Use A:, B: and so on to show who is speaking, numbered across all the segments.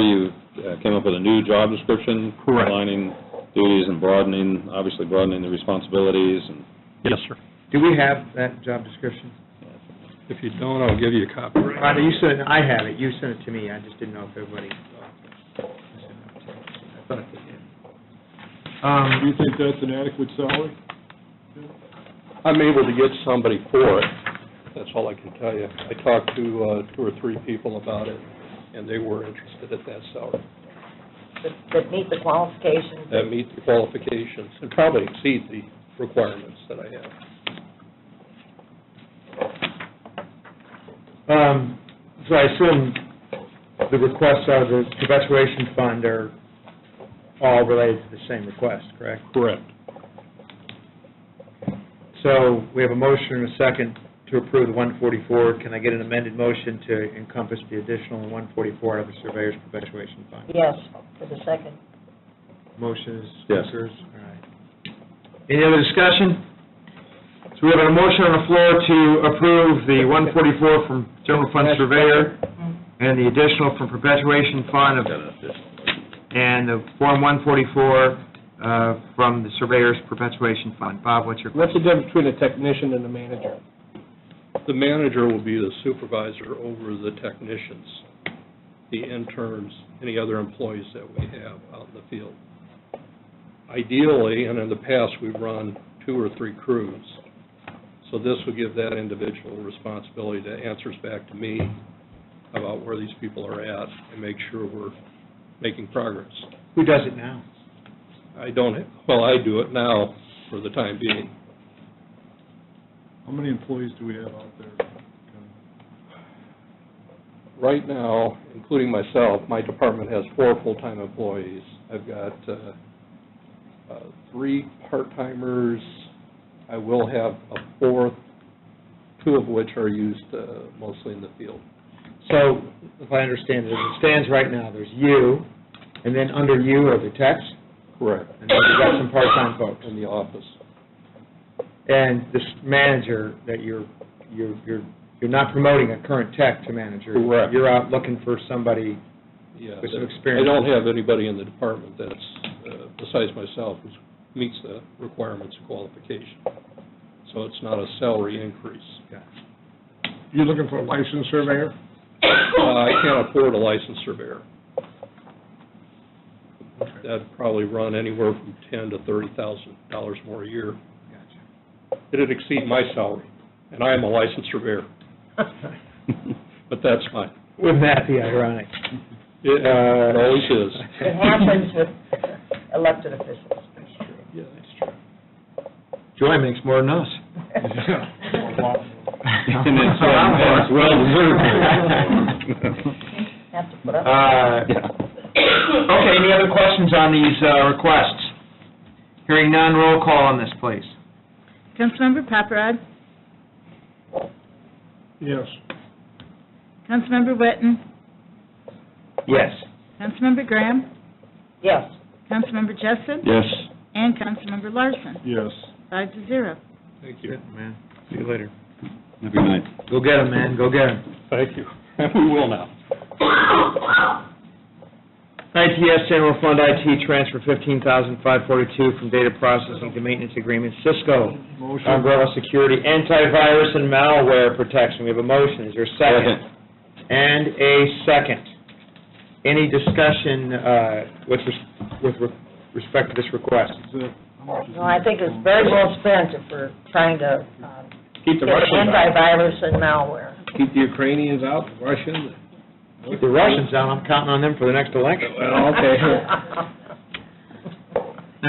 A: you uh, came up with a new job description?
B: Correct.
A: Aligning duties and broadening, obviously broadening the responsibilities and...
B: Yes, sir.
C: Do we have that job description?
B: If you don't, I'll give you a copy.
C: Rhonda, you sent, it- I have it, you sent it to me, I just didn't know if everybody. I thought they did.
D: Do you
C: Um,
D: think that's an adequate salary?
E: I'm able to get somebody for it, that's all I can tell you. I talked to uh two or three people about it, and they were interested at that salary.
F: that- that meet the qualifications.
E: That meets the qualifications, and probably exceed the requirements that I have.
C: um, so I assume the requests out of the perpetuation fund are all related to the same request, correct?
D: Correct.
C: So we have a motion and a second to approve the 144. Can I get an amended motion to encompass the additional 144 out of the surveyor's perpetuation fund?
F: Yes, for the second.
C: Motion is
A: Yes.
C: Spencer's, all right. Any other discussion? So we have a motion on the floor to approve the 144 from general fund surveyor and the additional from perpetuation fund of, and the Form 144 uh, from the surveyor's perpetuation fund. Bob, what's your
D: What's the difference between a technician and a manager?
E: The manager will be the supervisor over the technicians, the interns, any other employees that we have out in the field. Ideally, and in the past, we've run two or three crews, so this would give that individual responsibility to answers back to me about where these people are at and make sure we're making progress.
C: Who does it now?
E: I don't, well, I do it now for the time being.
D: How many employees do we have out there?
E: Right now, including myself, my department has four full-time employees. I've got uh, uh, three part-timers. I will have a fourth, two of which are used uh, mostly in the field.
C: So, if I understand it, as it stands right now, there's you, and then under you are the techs,
E: Correct.
C: and then you've got some part-time folks.
E: In the office.
C: And this manager that you're, you're, you're you're not promoting a current tech to manager.
E: Correct.
C: You're out looking for somebody,
E: Yeah.
C: With some
E: that-
C: experience.
E: I don't have anybody in the department that's, uh, besides myself, who meets the requirements of qualification. So it's not a salary increase.
D: You're looking for a licensed surveyor?
E: Uh, I can't afford a licensed surveyor. That'd probably run anywhere from ten to thirty thousand dollars more a year. It'd exceed my salary, and I am a licensed surveyor. But that's fine.
C: wouldn't that be ironic?
E: It it always is.
F: It happens with elected officials.
E: Yeah, that's
C: Joy makes more than us.
A: And it's, uh, and it's well deserved.
F: Have to put up.
C: Uh, Okay, any other questions on these uh, requests? Hearing none, roll call on this, please.
G: Councilmember Paparad,
D: Yes.
G: Councilmember Witten,
C: Yes.
G: Councilmember Graham,
F: Yes,
G: Councilmember Jessen,
A: Yes.
G: and Councilmember Larson,
D: Yes.
G: five to zero.
E: Thank you.
C: Good, man. See you later.
A: Have a good night.
C: Go get 'em, man, go get 'em.
E: Thank you. We will now.
C: ITS General Fund IT transfer fifteen thousand five forty-two from data processing to maintenance agreements. Cisco
D: Motion.
C: umbrella security antivirus and malware protection. We have a motion, is there a second? And a second. Any discussion uh, with, res- with re- respect to this request?
D: Is that- how much is
F: no, I think it's very well spent if we're trying to um,
A: Keep
F: get antivirus and malware.
D: Keep the Ukrainians out, the Russians.
C: Keep the Russians out, I'm counting on them for the next election.
D: Well, okay.
C: All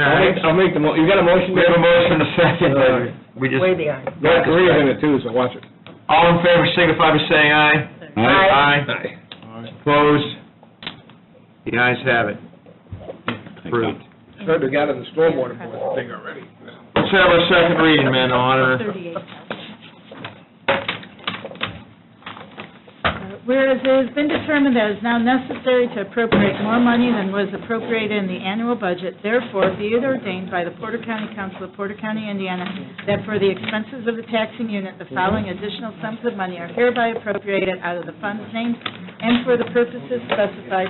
C: right.
D: I'll make the, mo- you got a motion?
C: We have a motion, a second.
D: Uh,
C: We just,
F: Way behind.
D: North Korea's in it too, so watch it.
C: all in favor, signify by saying aye.
F: Aye.
D: All right.
C: Opposed? The ayes have it. Approved.
D: Heard they got in the stormwater board thing already.
C: Let's have our second reading, man, Honor.
G: Thirty-eight. Uh, Whereas it has been determined that it is now necessary to appropriate more money than was appropriated in the annual budget, therefore be it ordained by the Porter County Council of Porter County, Indiana, that for the expenses of the taxing unit, the following additional sums of money are hereby appropriated out of the funds named and for the purposes specified